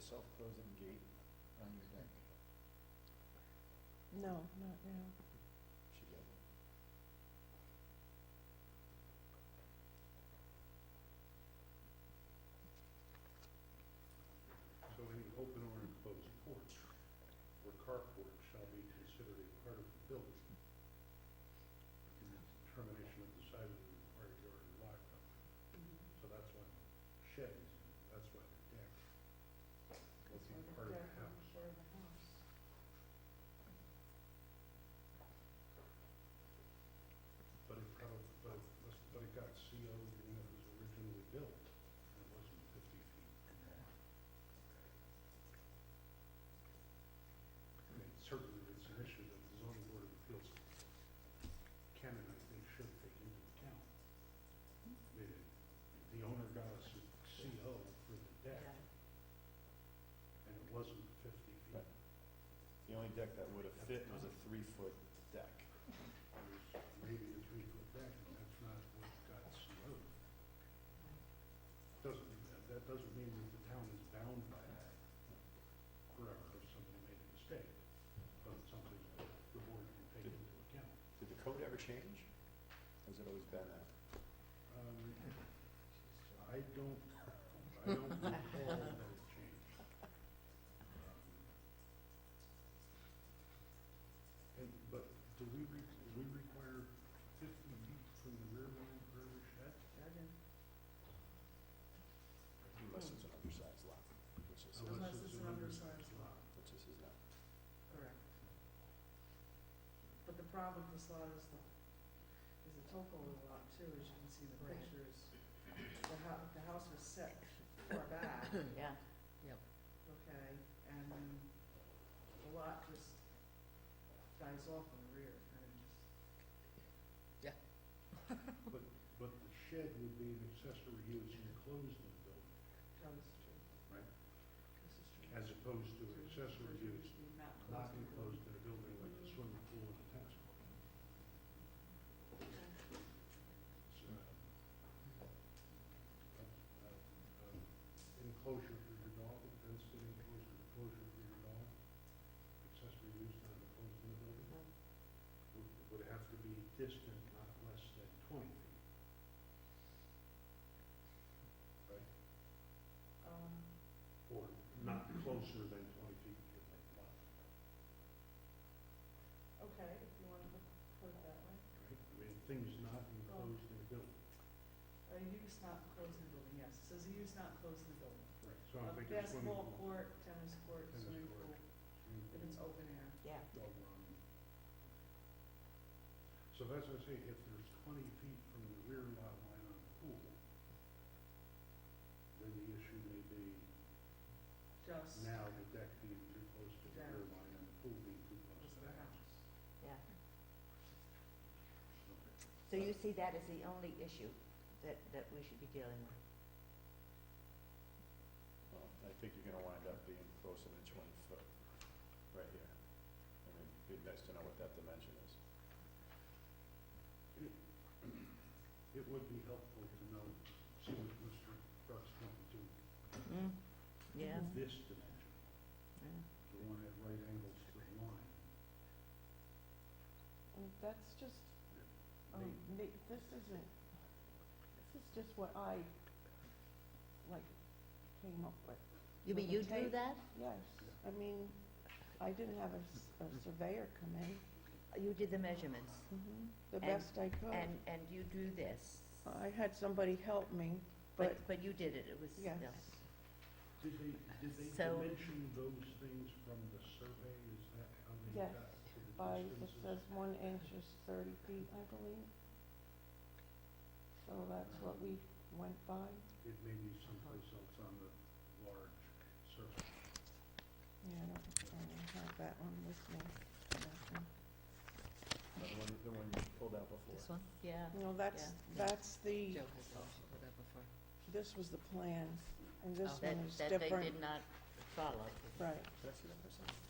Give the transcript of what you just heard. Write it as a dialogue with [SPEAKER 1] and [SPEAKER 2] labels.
[SPEAKER 1] self-closing gate on your deck?
[SPEAKER 2] No, not now.
[SPEAKER 1] Should get one.
[SPEAKER 3] So any open or enclosed porch or carport shall be considered a part of the building in the determination of the size of the required yard or lot coverage. So that's why shed is, that's why the deck will be part of the house. But it probably, but it was, but it got CO'd when it was originally built, and it wasn't fifty feet. I mean, certainly it's an issue that the zoning board of appeals can and I think should take into account. The, the owner got us a CO for the deck, and it wasn't fifty feet.
[SPEAKER 1] Right. The only deck that would have fit was a three-foot deck.
[SPEAKER 3] There's maybe a three-foot deck, and that's not what got CO. Doesn't, that, that doesn't mean that the town is bound by that forever if somebody made a mistake, but it's something that the board can take into account.
[SPEAKER 1] Did the code ever change? Has it always been that?
[SPEAKER 3] Um, I don't, I don't recall that it changed. Um, And, but do we, re- do we require fifty feet from the rear line for every shed?
[SPEAKER 1] Unless it's an undersized lot, which is,
[SPEAKER 4] Unless
[SPEAKER 3] Unless it's
[SPEAKER 4] it's
[SPEAKER 3] an
[SPEAKER 4] an undersized lot,
[SPEAKER 1] which this is not.
[SPEAKER 4] correct. But the problem with this lot is the, is the topo of the lot too, as you can see in the
[SPEAKER 2] Right.
[SPEAKER 4] pictures. The house, the house was set far back,
[SPEAKER 2] Yeah.
[SPEAKER 4] okay, and then the lot just dies off in the rear, kind of just.
[SPEAKER 3] But the shed would be an accessory use enclosed in the building,
[SPEAKER 4] That is true.
[SPEAKER 3] Right.
[SPEAKER 4] This is true.
[SPEAKER 3] as opposed to an accessory use
[SPEAKER 4] Not
[SPEAKER 3] not
[SPEAKER 4] closed.
[SPEAKER 3] enclosed in a building like a swimming pool and a tennis court. It's, uh, uh, uh, Enclosure for your dog, a fenced in enclosure, enclosure for your dog, accessory use not enclosed in the building, would, would have to be distant not less than twenty feet. Right?
[SPEAKER 4] Um,
[SPEAKER 3] or not closer than twenty feet to the lot,
[SPEAKER 4] okay, if you wanna put put it that way.
[SPEAKER 3] right? I mean, things not enclosed in a building,
[SPEAKER 4] A use not enclosed in the building, yes, it says a use not enclosed in the building.
[SPEAKER 3] right? So
[SPEAKER 4] A
[SPEAKER 3] I'm thinking swimming
[SPEAKER 4] Basketball
[SPEAKER 3] pool.
[SPEAKER 4] court, tennis court,
[SPEAKER 3] Tennis
[SPEAKER 4] swimming
[SPEAKER 3] court.
[SPEAKER 4] pool,
[SPEAKER 3] swimming
[SPEAKER 4] if
[SPEAKER 3] pool,
[SPEAKER 4] it's open air.
[SPEAKER 2] Yeah.
[SPEAKER 3] dog run. So that's what I say, if there's twenty feet from the rear lot line on the pool, then the issue may be
[SPEAKER 4] Just,
[SPEAKER 3] now the deck being too close to the rear line and the pool being too close
[SPEAKER 4] just
[SPEAKER 3] to
[SPEAKER 4] the
[SPEAKER 3] the house.
[SPEAKER 4] house.
[SPEAKER 5] So you see that as the only issue that, that we should be dealing with?
[SPEAKER 1] Well, I think you're gonna wind up being closer to twenty foot, right here. I mean, it'd be nice to know what that dimension is.
[SPEAKER 3] It would be helpful to know, see what Mr. Brooks wanted to
[SPEAKER 5] Mm-hmm. Yeah,
[SPEAKER 3] this dimension, the one at right angles to the line.
[SPEAKER 2] And that's just, um,
[SPEAKER 3] The-
[SPEAKER 2] ma- this isn't, this is just what I, like, came up with.
[SPEAKER 5] You mean you do that?
[SPEAKER 2] Yes, I mean, I didn't have a, s- a surveyor come in,
[SPEAKER 5] You did the measurements,
[SPEAKER 2] Mm-hmm. the
[SPEAKER 5] And-
[SPEAKER 2] best I could.
[SPEAKER 5] and, and you do this,
[SPEAKER 2] I had somebody help me,
[SPEAKER 5] but,
[SPEAKER 2] but,
[SPEAKER 5] but you did it, it was,
[SPEAKER 2] yes,
[SPEAKER 5] yeah.
[SPEAKER 3] Did they, did they
[SPEAKER 5] So-
[SPEAKER 3] dimension those things from the survey? Is that how they
[SPEAKER 2] Yes,
[SPEAKER 3] got to the
[SPEAKER 2] by, it
[SPEAKER 3] distances?
[SPEAKER 2] says one inch is thirty feet, I believe. So that's what we went by.
[SPEAKER 3] It may be someplace else on the large survey.
[SPEAKER 2] Yeah, I don't, I don't have that one with me. That one.
[SPEAKER 1] Now, The one, the one you pulled out before.
[SPEAKER 5] one? Yeah.
[SPEAKER 2] No, that's,
[SPEAKER 5] Yeah.
[SPEAKER 2] that's the,
[SPEAKER 4] Joe has also put that before.
[SPEAKER 2] this was the plan, and this
[SPEAKER 5] Oh, That,
[SPEAKER 2] one is
[SPEAKER 5] that they
[SPEAKER 2] different.
[SPEAKER 5] did not follow.
[SPEAKER 2] Right,
[SPEAKER 1] Can I see that for a second?